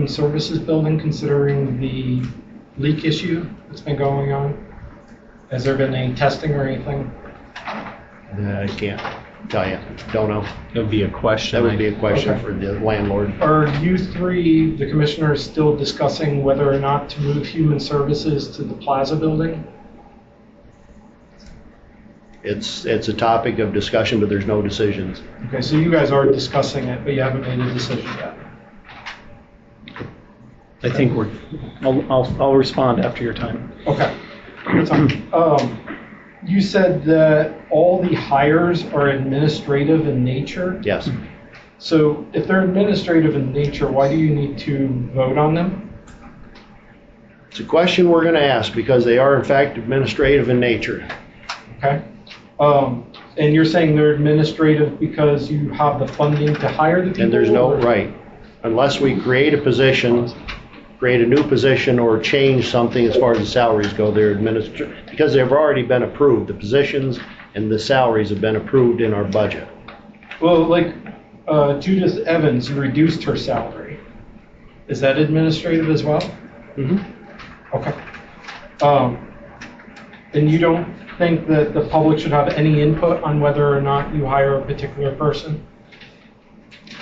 the services building considering the leak issue that's been going on? Has there been any testing or anything? Uh, I can't tell you. Don't know. It would be a question. That would be I- a question Okay. for the landlord. Are you three, the commissioners, still discussing whether or not to move human services to the plaza building? It's, it's a topic of discussion, but there's no decisions. Okay, so you guys are discussing it, but you haven't made a decision yet. I think we're, I'll, I'll, I'll respond after your time. Okay. That's fine. Um, You said that all the hires are administrative in nature? Yes. So if they're administrative in nature, why do you need to vote on them? It's a question we're going to ask because they are in fact administrative in nature. Okay? Um, And you're saying they're administrative because you have the funding to hire the people? And there's no, or- right, unless we create a position, create a new position or change something as far as the salaries go, they're administered, because they've already been approved, the positions and the salaries have been approved in our budget. Well, like uh, Judith Evans, you reduced her salary. Is that administrative as well? Okay. Um, Then you don't think that the public should have any input on whether or not you hire a particular person?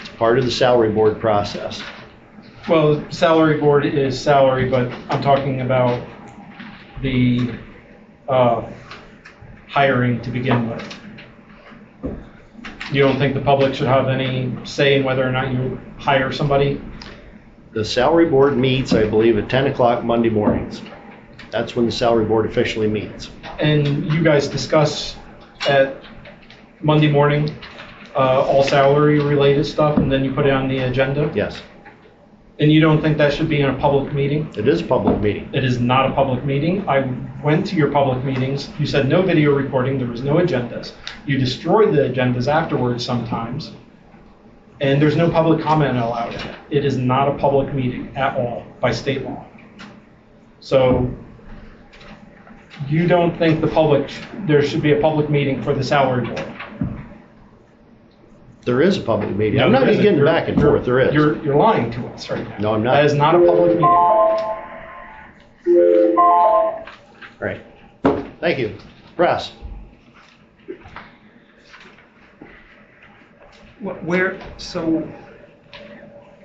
It's part of the salary board process. Well, salary board is salary, but I'm talking about the uh, hiring to begin with. You don't think the public should have any say in whether or not you hire somebody? The salary board meets, I believe, at 10 o'clock Monday mornings. That's when the salary board officially meets. And you guys discuss at Monday morning, uh, all salary-related stuff, and then you put it on the agenda? Yes, And you don't think that should be in a public meeting? it is a public meeting. It is not a public meeting. I went to your public meetings. You said no video recording. There was no agendas. You destroy the agendas afterwards sometimes. And there's no public comment allowed in it. It is not a public meeting at all by state law. So you don't think the public, there should be a public meeting for the salary board? There is a public meeting. I'm No, not there even isn't. getting You're- back and forth, there is. You're, you're lying to us right now. No, I'm not. That is not a public meeting. All right. Thank you. Press. Wh- Where, so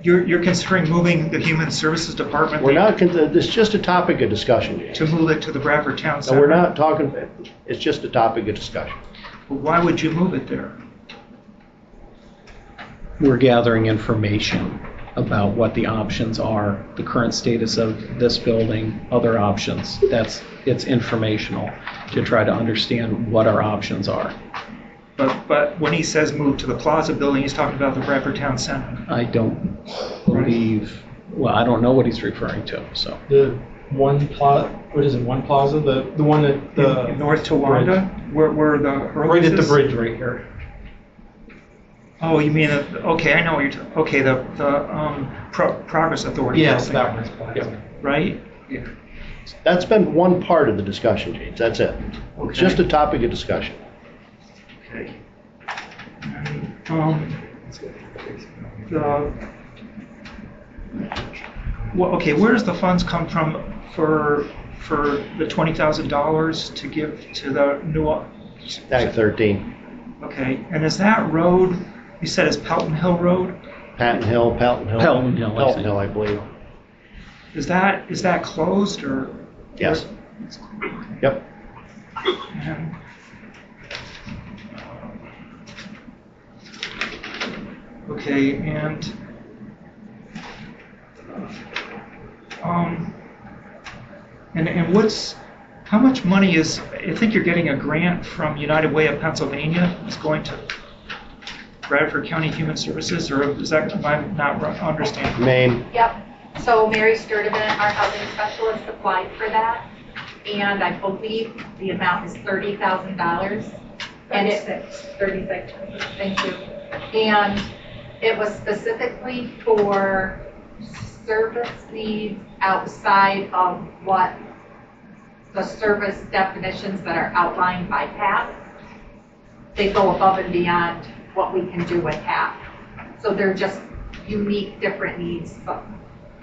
you're, you're considering moving the Human Services Department? We're not, con- it's just a topic of discussion. To James. move it to the Bradford Town No, Center? we're not talking, it's just a topic of discussion. Why would you move it there? We're gathering information about what the options are, the current status of this building, other options. That's, it's informational to try to understand what our options are. But, but when he says move to the Plaza Building, he's talking about the Bradford Town Center. I don't believe, well, I don't know what he's referring to, so. The one plot, what is it, one plaza? The, the one at the. In North Towanda, where, where the Right Hurley's at the is? bridge right here. Oh, you mean, the- okay, I know what you're, ta- okay, the, the um, Pro- Progress Authority. Yes, that Building, one's plaza. Right? That's been one part of the discussion, James, that's it. It's just a topic of discussion. Okay. Um, the- Well, okay, where does the funds come from for, for the twenty thousand dollars to give to the new, Act 13, okay, and is that road, you said it's Pelton Hill Road? Patton Hill, Pelton Hill. Pelton Hill, I Pelton think. Hill, I believe. Is that, is that closed or? Yes. Yep. And- Okay, and um, and and what's how much money is? I think you're getting a grant from United Way of Pennsylvania. It's going to Bradford County Human Services, or is that am I not ru- understanding? Name, Yep, so Mary Sturdivant, our housing specialist, applied for that, and I believe the amount is thirty thousand dollars. And it, thirty-six, thank you. And it was specifically for service needs outside of what the service definitions that are outlined by PAP. They go above and beyond what we can do with PAP. So they're just unique, different needs, but